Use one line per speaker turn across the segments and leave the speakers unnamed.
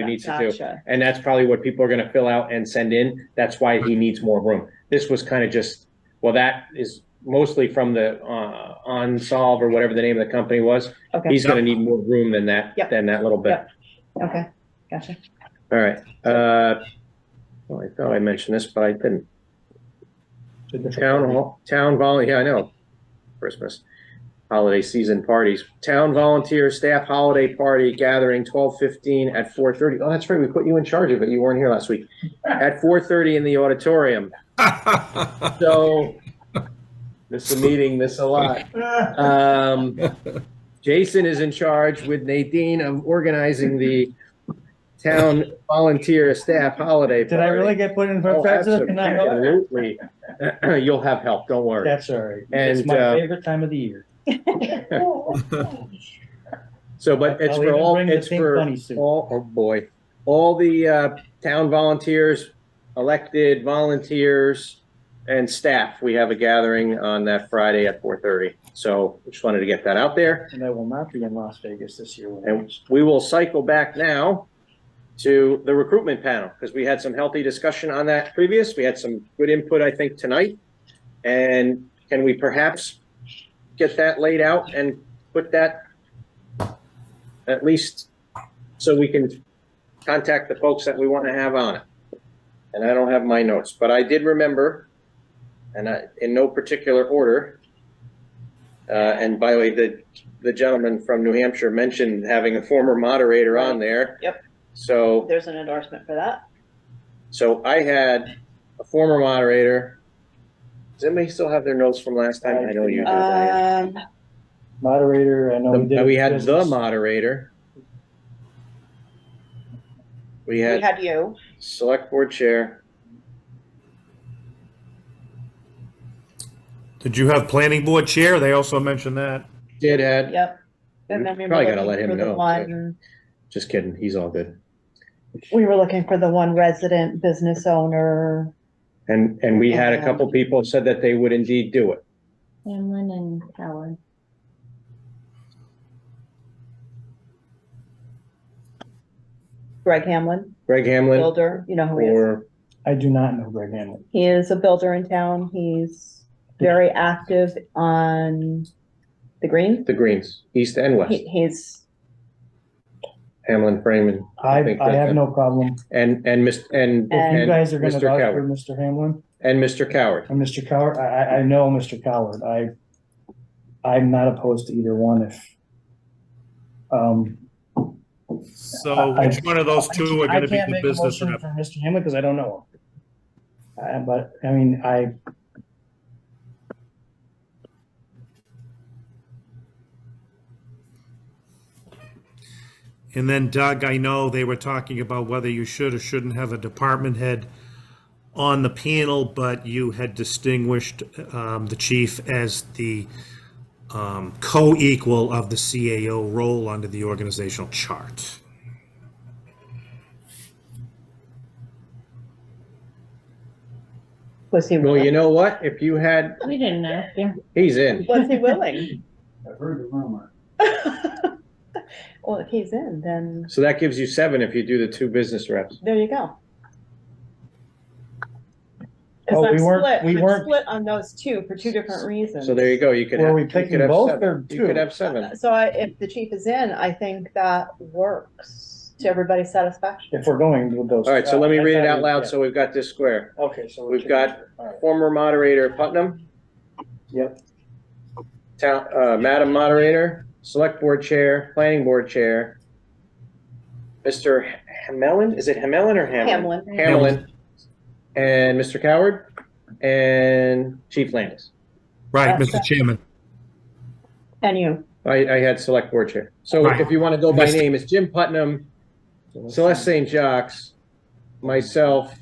he needs to do.
Gotcha.
And that's probably what people are gonna fill out and send in. That's why he needs more room. This was kind of just, well, that is mostly from the, uh, Unsolve or whatever the name of the company was.
Okay,
He's gonna need more room than that,
Yep.
than that little bit.
Yep. okay, gotcha.
All right, uh, well, I thought I mentioned this, but I didn't. Town hall, town vol, yeah, I know, Christmas, holiday season parties, town volunteer staff holiday party gathering twelve fifteen at four thirty. Oh, that's right, we put you in charge of it, you weren't here last week. At four thirty in the auditorium, so miss a meeting, miss a lot. Um, Jason is in charge with Nadine of organizing the town volunteer staff holiday.
Did I really get put in for
Oh,
president? Can I help?
Absolutely. You'll have help, don't worry.
That's all right.
And,
It's my
uh,
favorite time of the year.
So, but it's
I'll
for
even
all,
bring the
it's
pink
for
bunny suit.
all, oh boy, all the uh, town volunteers, elected volunteers and staff. We have a gathering on that Friday at 4:30. So just wanted to get that out there.
And I will not be in Las Vegas this year. when
And we will cycle back now to the recruitment panel, because we had some healthy discussion on that previous. We had some good input, I think, tonight. And can we perhaps get that laid out and put that at least so we can contact the folks that we want to have on it? And I don't have my notes, but I did remember, and I, in no particular order, uh, and by the way, the the gentleman from New Hampshire mentioned having a former moderator on there.
Yep.
So,
There's an endorsement for that.
so I had a former moderator. Does anybody still have their notes from last time? I know you do, Diane.
Um,
Moderator, I know we
The-
did.
We had the
business.
moderator. We
we
had
had you,
select board chair.
Did you have planning board chair? They also mentioned that.
Did had,
yep. And
We
then we were
probably gotta
looking
let him
for the
know, but-
one-
just kidding, he's all good.
We were looking for the one resident business owner.
And, and we had a
Yeah.
couple people said that they would indeed do it.
Hamlin and Howard.
Greg Hamlin,
Greg Hamlin
builder, you know who he is.
or,
I do not know Greg Hamlin.
He is a builder in town. He's very active on the green.
the Greens, East and West,
He, he's,
Hamlin, Freeman.
I,
think
I
that-
have no problem.
And, and Mr., and,
And-
You
and
guys are gonna
Mr.
vouch for
Coward,
Mr. Hamlin
and Mr. Coward.
and Mr. Coward. I, I, I know Mr. Coward. I, I'm not opposed to either one if, um.
So
I-
which one of those two are
I
gonna be
can't
the
make a
business
motion
rep?
For Mr. Hamlin, because I don't know him. Uh, but, I mean, I,
And then Doug, I know they were talking about whether you should or shouldn't have a department head on the panel, but you had distinguished um, the chief as the um, co-equal of the CAO role under the organizational chart.
was he
Well, you
willing?
know what? If you had,
We didn't ask him.
he's in.
Was he willing?
I've heard the rumor.
Well, if he's in, then
So that gives you seven if you do the two business reps.
there you go.
Oh,
Cause I'm
we weren't-
split,
we
I'm
weren't-
split on those two for two different reasons. Uh,
So there you go. You could
Were
have.
we
you could
picking
have
both
seven.
or
You could
two?
have seven.
So I, if the chief is in, I think that works to everybody's satisfaction.
If we're going with those.
All right, so let me
I
read it
thought
out
we-
loud
yeah.
so we've got this square.
Okay, so. we
We've
can-
got-
all right.
Former moderator Putnam,
Yep,
town, uh, Madam Moderator, Select Board Chair, Planning Board Chair, Mr. Hamelin, is it Hamelin or Hamlin?
Hamlin,
Hamlin. And Mr. Coward and Chief Landis.
Right,
That's
Mr. Chairman.
and you,
I, I had Select Board Chair. So
Right.
if you want to go by
Mr.
name, it's Jim Putnam, Celeste uh, St. Jacques, myself,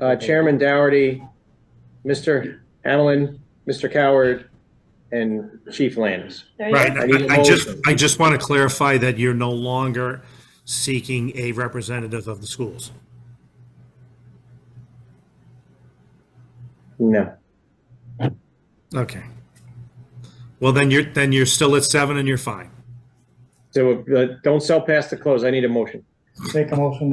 uh, Chairman Dougherty, Mr. Allen, Mr. Coward, and Chief Landis.
there you
Right,
go.
I need a
I- I just,
motion.
I just want to clarify that you're no longer seeking a representative of the schools.
No.
Okay. Well, then you're, then you're still at seven and you're fine.
So uh, don't sell past the close. I need a motion.
Take a motion